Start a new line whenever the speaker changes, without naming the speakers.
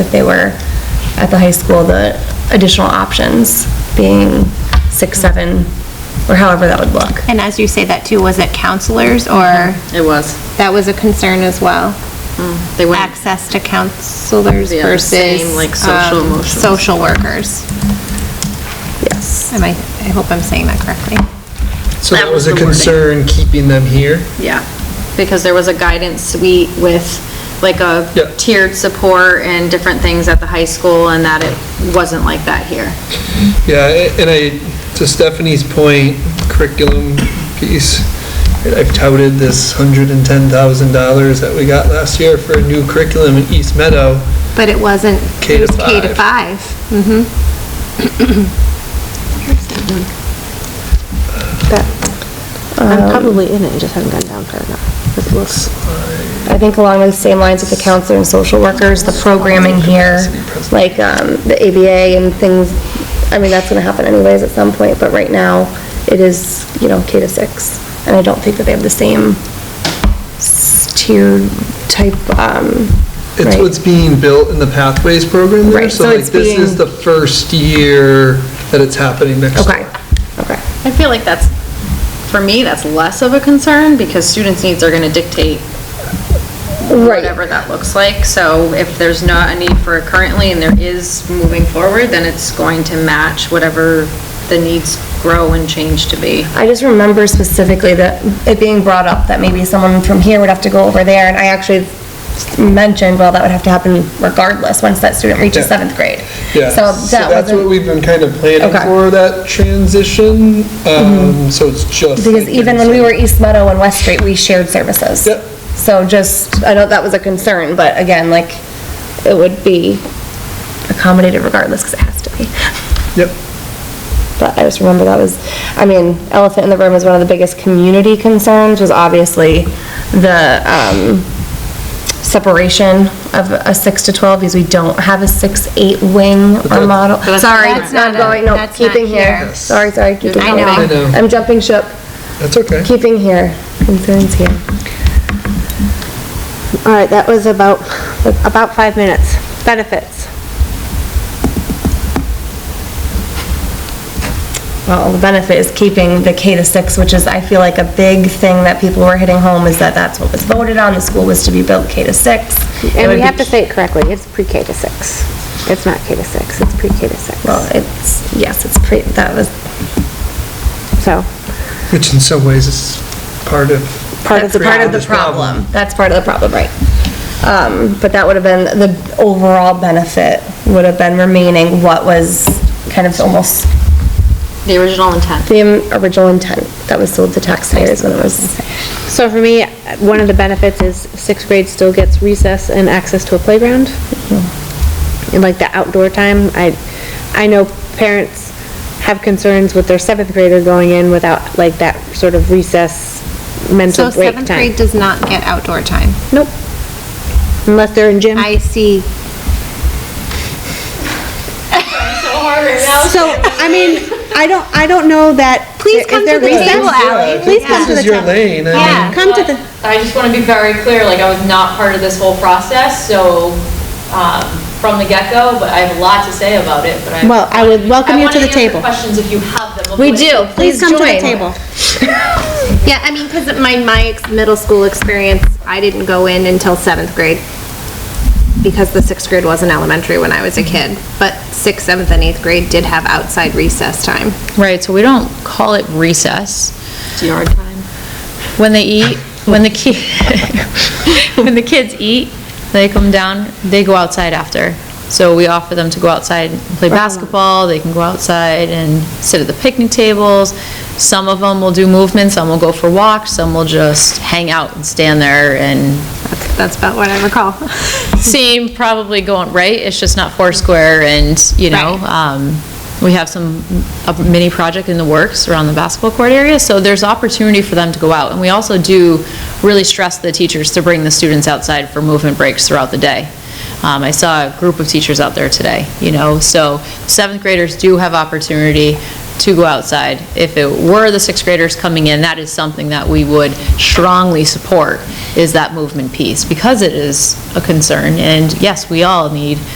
if they were at the high school, the additional options being six, seven, or however that would look.
And as you say that too, was it counselors or,
It was.
that was a concern as well?
They went,
Access to counselors
Yeah, the same,
versus.
like, social
um,
emotions.
Social workers.
Yes.
Am I, I hope I'm saying that correctly.
So
That
that
was
was a
the wording.
concern, keeping them here?
yeah, because there was a guidance suite with like a
Yep.
tiered support and different things at the high school and that it wasn't like that here.
Yeah, a- and I, to Stephanie's point, curriculum piece, I've touted this hundred and ten thousand dollars that we got last year for a new curriculum in East Meadow.
But it wasn't,
K
it
to
was K to
five.
five. Mm-hmm.
I'm probably in it, just haven't gone down far enough. 'cause it looks-
I think along the same lines with the counselor and social workers, the programming here, like, um, the ABA and things, I mean, that's gonna happen anyways at some point, but right now, it is, you know, K to six. And I don't think that they have the same s- tiered type, um,
It's
right.
what's being built in the Pathways program there.
Right, so
like,
it's
This is
being-
the first year that it's happening next
Okay,
year.
okay.
I feel like that's, for me, that's less of a concern because students' needs are gonna dictate
Right.
whatever that looks like. So if there's not a need for it currently and there is moving forward, then it's going to match whatever the needs grow and change to be.
I just remember specifically that it being brought up that maybe someone from here would have to go over there, and I actually mentioned, well, that would have to happen regardless, once that student reaches
Yeah.
seventh grade.
Yeah,
So
so
that
that's what
wasn't,
we've been kind of planning
Okay. Mm-hmm.
for, that transition. Um, so it's just.
because
like
even when we were e- East Meadow and West Street, we shared services.
Yep.
So just, I know that was a concern, but again, like, it would be accommodated regardless, because it has to be.
Yep.
But I just remember that was, I mean, elephant in the room is one of the biggest community concerns was obviously the, um, separation of a six to 12 because we don't have a six, eight wing or model.
that's-
Sorry,
That's
not
not-
going, no,
that's not
keeping here.
here.
Sorry, sorry, keeping
I know.
here.
I know.
I'm jumping ship,
That's okay.
keeping here, concerns here.
All right, that was about, about five minutes. Benefits.
Well, the benefit is keeping the K to six, which is, I feel like, a big thing that people were hitting home is that that's what was voted on. The school was to be built K to six. It
And
would
we
be
have to say it correctly, it's pre-K to six. It's not K to six, it's pre-K to six.
Well, it's, yes, it's pretty, that was
So,
Which in some ways is part of,
part of
That's
the
part of
problem.
the
problem.
problem. That's part of the problem, right. Um, but that would have been, the overall benefit would have been remaining what was kind of almost
The original intent.
the original intent that was sold to taxpayers when it was,
So for me, one of the benefits is sixth grade still gets recess and access to a playground. And like the outdoor time, I, I know parents have concerns with their seventh grader going in without like that sort of recess
So
mental break
seventh grade
time.
does not get outdoor time.
Nope. Unless they're in gym.
I see.
So, I mean, I don't, I don't know that.
Please
if
come
they're
to the
recessed-
table, Ally.
Please
this
come to the
is your
table.
lane. I mean,
Yeah.
Come to the,
I just want to be very clear, like, I was not part of this whole process, so, um, from the get-go, but I have a lot to say about it, but I.
well, I would welcome you to the table.
I want to answer questions if you have them.
We do.
Please come to the
join.
table.
Yeah, I mean, because my, my ex- middle school experience, I didn't go in until seventh grade because the sixth grade wasn't elementary when I was a kid. But sixth, seventh, and eighth grade did have outside recess time.
Right, so we don't call it recess.
It's yard time.
When they eat, when the ki, when the kids eat, they come down, they go outside after. So we offer them to go outside and play
Uh-huh.
basketball, they can go outside and sit at the picnic tables. Some of them will do movement, some will go for walks, some will just hang out and stand there and
That's, that's about what I recall.
seem probably going, right? It's just not Foursquare and, you know,
Right.
um, we have some, a mini project in the works around the basketball court area, so there's opportunity for them to go out. And we also do really stress the teachers to bring the students outside for movement breaks throughout the day. Um, I saw a group of teachers out there today, you know, so seventh graders do have opportunity to go outside. If it were the sixth graders coming in, that is something that we would strongly support, is that movement piece, because it is a concern. And yes, we all need